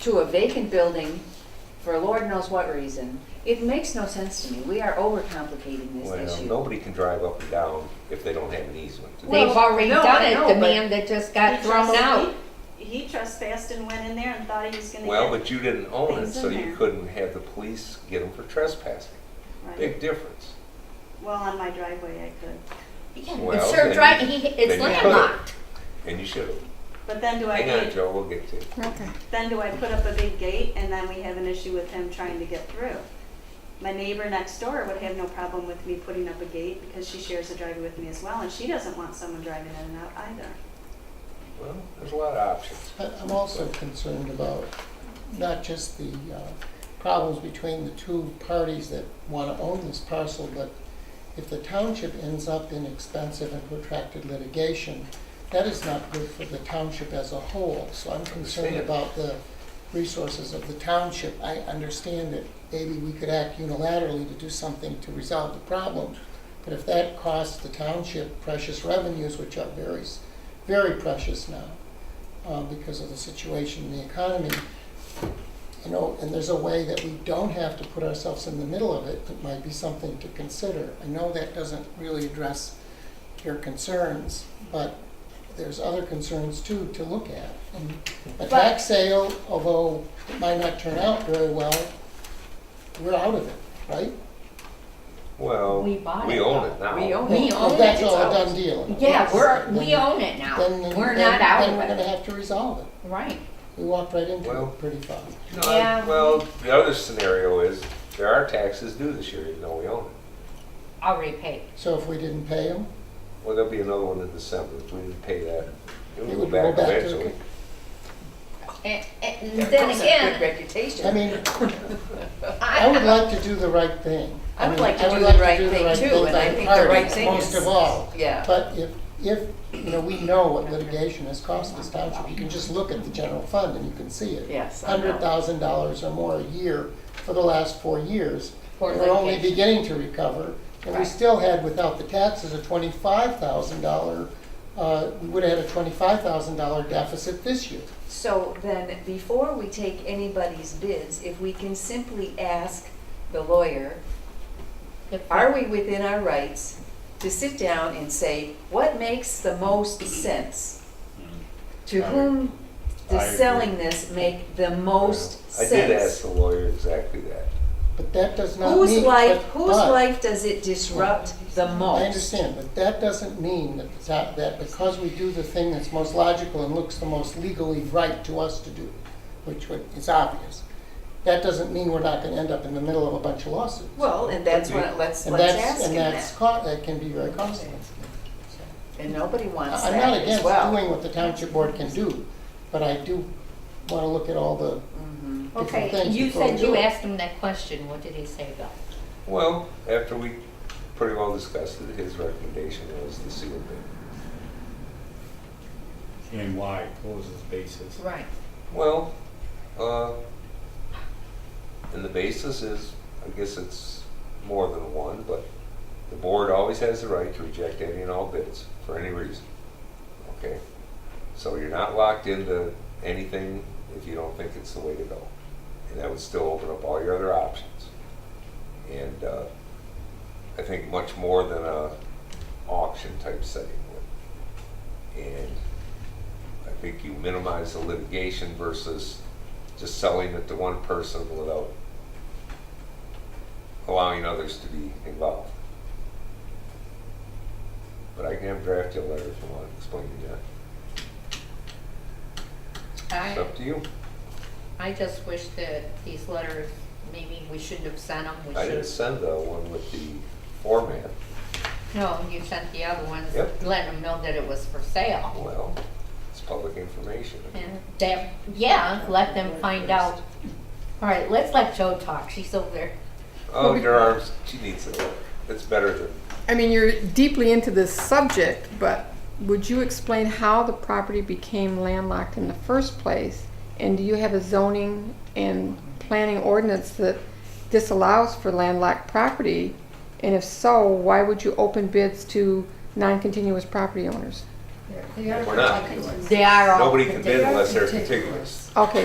to a vacant building for Lord knows what reason, it makes no sense to me. We are overcomplicating Well, this issue. nobody can drive up and down if they don't have an easement. Well, They've already no, done I know, it, but the man that just He got thrown trespassed- out. He he trespassed and went in there and thought he was gonna get. Well, but you didn't own it, Things in so you there. couldn't have the police get them for trespassing. Right. Big difference. Well, on my driveway I could, Yeah, Well, It's served then- right, he, then it's you could've. landlocked. And you should have. but then do I Hang on, get, Joe, we'll get to it. Okay. then do I put up a big gate and then we have an issue with him trying to get through? My neighbor next door would have no problem with me putting up a gate because she shares a driveway with me as well and she doesn't want someone driving in and out either. Well, there's a lot of options. I- I'm also concerned about not just the uh, problems between the two parties that want to own this parcel, but if the township ends up in expensive and protracted litigation, that is not good for the township as a whole. So I'm Understand. concerned about the resources of the township. I understand that maybe we could act unilaterally to do something to resolve the problem, but if that costs the township precious revenues, which are very, s- very precious now, uh, because of the situation in the economy. You know, and there's a way that we don't have to put ourselves in the middle of it, that might be something to consider. I know that doesn't really address your concerns, but there's other concerns too to look at. And a tax sale, although it might not turn out very well, we're out of it, right? Well, We bought we it, own though. it now. We own We it. own it, That's it's all a ours. done deal. Yeah, we're, we Then- own it now. Then, We're then- not out Then we're of gonna it. have to resolve it. Right. We walked right into Well- it pretty fast. No, Yeah. Well, the other scenario is there are taxes due this year, even though we own it. Already paid. So if we didn't pay them, Well, there'll be another one in December. If we didn't pay that, it It will go would back go back to- eventually. And, and That then comes with Good again, I reputation. mean, I would I, like to do the right thing. I would mean, like to I do the right thing too, by and I the think the right parties, thing Most is- of all. yeah. But if, if, you know, we know what litigation has cost this township, you can just look at the general fund and you can see it. Yes, I know. Hundred thousand dollars or more a year for the last four years. For And We're only litigation. beginning to recover, and we Right. still had, without the taxes, a twenty-five thousand dollar, uh, we would have had a twenty-five thousand dollar deficit this year. So then, before we take anybody's bids, if we can simply ask the lawyer, If- are we within our rights to sit down and say, what makes the most sense? To Mm. I- whom I does agree. selling this make the most I sense? did ask the lawyer exactly that. But that does not mean. Whose life, but- whose but- life does it disrupt the most? I understand, but that doesn't mean that, the ta- that because we do the thing that's most logical and looks the most legally right to us to do, which would- is obvious, that doesn't mean we're not gonna end up in the middle of a bunch of lawsuits. Well, and that's Could be. what, let's, And let's that's, ask him and that's, that. co- that can be very costly. So, And nobody wants I- I'm not that as against well. doing what the township board can do, but I do wanna look at all the Mhm. different okay, things you before we said do you it. asked him that question. What did he say, Bill? Well, after we pretty well discussed it, his recommendation was the seal bid. And why, what was his basis? Right. Well, uh, and the basis is, I guess it's more than one, but the board always has the right to reject any and all bids for any reason. Okay? So you're not locked into anything if you don't think it's the way to go. And that would still open up all your other options. And, uh, I think much more than a auction type setting would. And I think you minimize the litigation versus just selling it to one person without allowing others to be involved. But I can have draft you a letter if you want to explain to that. It's I, up to you. I just wish that these letters, maybe we shouldn't have sent them. We I didn't should, send the one with the format. no, you sent the other ones, Yep. letting them know that it was for sale. Well, it's public information. And that, yeah, let them find out. All right, let's let Joe talk. She's over there. Oh, your arms, she needs it. It's better than, I mean, you're deeply into this subject, but would you explain how the property became landlocked in the first place? And do you have a zoning and planning ordinance that disallows for landlocked property? And if so, why would you open bids to non-continuous property owners? we're not. They are all. Nobody can bid unless they're contiguous. Okay,